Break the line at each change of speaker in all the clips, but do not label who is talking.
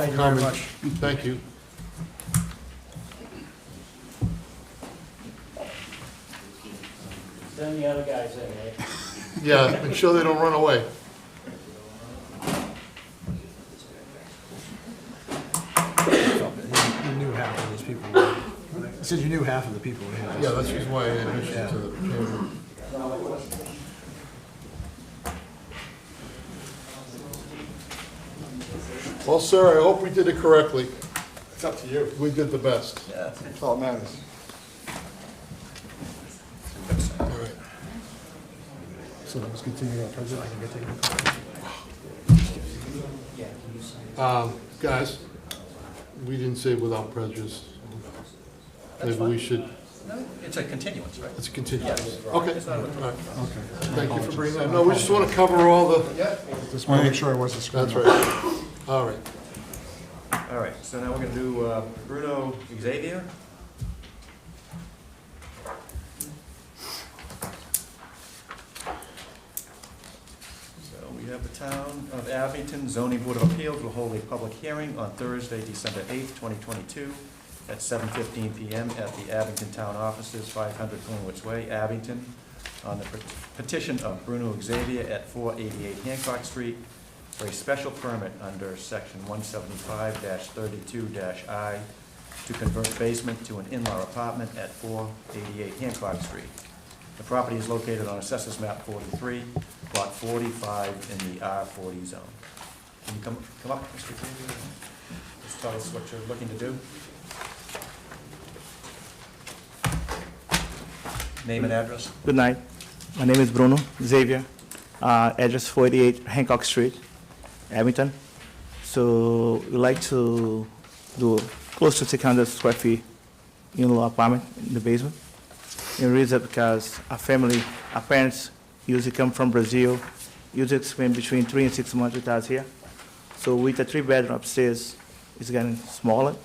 Thank you very
Comment.
much.
Thank you.
Send the other guys in, eh?
Yeah, make sure they don't run away.
You knew half of these people. were- You said you knew half of the people were here.
Yeah, that's the reason why I introduced you to the camera. Well, sir, I hope we did it correctly.
It's up to you.
We did the best.
That's all that matters.
All right.
So let's continue our president. I can get taken.
Um, Guys, we didn't say without prejudice. Maybe we should,
It's a continuance, right?
let's continue. Okay, all right.
Okay.
Thank you for bringing that. No, we just want to cover all the,
Just want to make sure I wasn't screwing
that's
up.
right. All right.
All right, so now we're gonna do uh, Bruno Xavier. So we have the Town of Abington Zoning Board of Appeals will hold a public hearing on Thursday, December eighth, twenty twenty-two, at seven fifteen PM at the Abington Town Offices, five hundred Glenwood Way, Abington, on the pet- petition of Bruno Xavier at four eighty-eight Hancock Street, for a special permit under section one seventy-five thirty-two I to convert basement to an in-law apartment at four eighty-eight Hancock Street. The property is located on assessors map forty-three, lot forty-five in the R forty zone. Can you come, come up, Mr. Xavier? Just tell us what you're looking to do. Name and address.
Good night. My name is Bruno Xavier, uh, address 48 Hancock Street, Abington. So we like to do close to 600 square feet in-law apartment in the basement. And reason because our family, our parents usually come from Brazil, usually spend between three and six months with us here. So with the three-bedroom upstairs, it's getting smaller.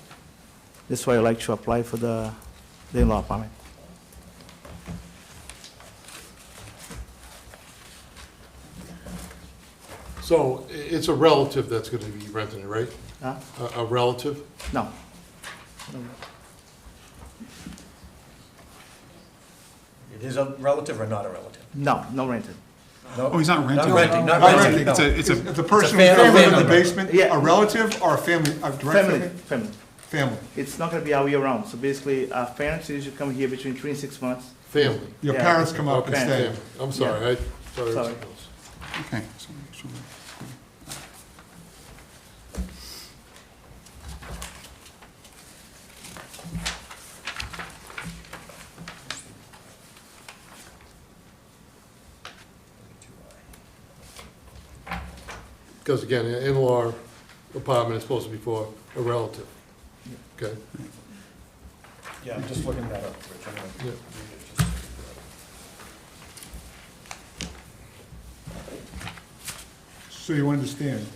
That's why I like to apply for the the in-law apartment.
So i- it's a relative that's going to be renting it, right?
Huh?
A- A relative?
No.
It is a relative or not a relative?
No, no rented.
No?
Oh, he's not renting?
Not renting, not
Not
renting,
It's
no.
a, it's a, the person
It's
who's gonna
a
live in
family.
the basement,
Yeah.
a relative or a family, a direct
Family,
family?
family.
Family.
It's not gonna be all year round, so basically, uh, our parents usually come here between three and six months.
Family.
Your
Yeah.
parents come up and
Okay.
stay.
Family. I'm sorry, I, sorry.
Sorry.
Okay. so- so-
Because again, an in-law apartment is supposed to be for a relative. Okay?
Yeah, I'm just looking that up, Rich. I'm gonna
Yeah.
read it just so
So you understand,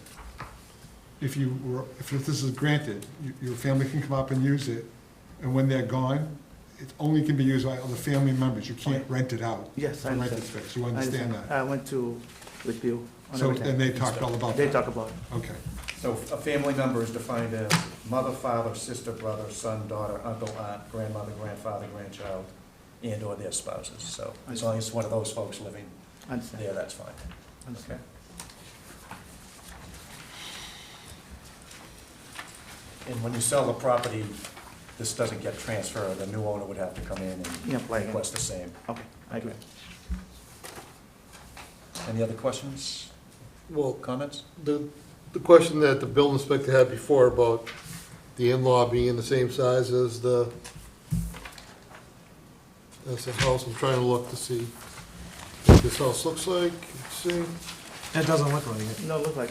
if you were, if this is granted, you- your family can come up and use it, and when they're gone, it only can be used by other family members, you can't rent it out.
Yes,
for
I
rented
understand.
space. You understand that?
I went to, with Bill on
So, and
everything.
they talked all about
They
that?
talk about it.
Okay.
So a family member is defined as mother, father, sister, brother, son, daughter, uncle, aunt, grandmother, grandfather, grandchild, and/or their spouses. So as long as it's one of those folks living
I understand,
there, that's fine.
understand.
And when you sell the property, this doesn't get transferred, the new owner would have to come in and
Yeah, play again.
request the same.
Okay, I agree.
Any other questions,
Well,
comments?
the, the question that the building inspector had before about the in-law being the same size as the, as the house, I'm trying to look to see what this house looks like, see?
That doesn't look like it.
No, look like,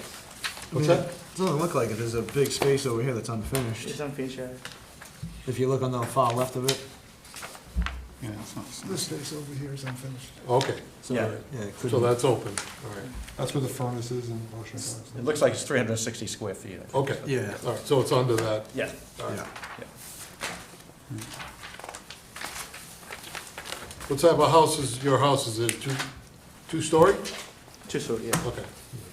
What's
I
that?
mean, it Doesn't look like it. There's a big space over here that's
it's
unfinished.
unfinished, yeah.
If you look on the far left of it,
Yeah, it's not- it's not-
This space over here is unfinished.
Okay,
so,
Yeah.
yeah, it
so
couldn't,
that's open, all right,
That's where the furnace is and washer and dryer's.
It looks like it's three hundred and sixty square feet. I think.
okay.
yeah,
All right, so it's under that,
Yeah.
all right.
yeah. What
What type of house is, your house, is it two, two-story?
Two story, yeah.
Okay.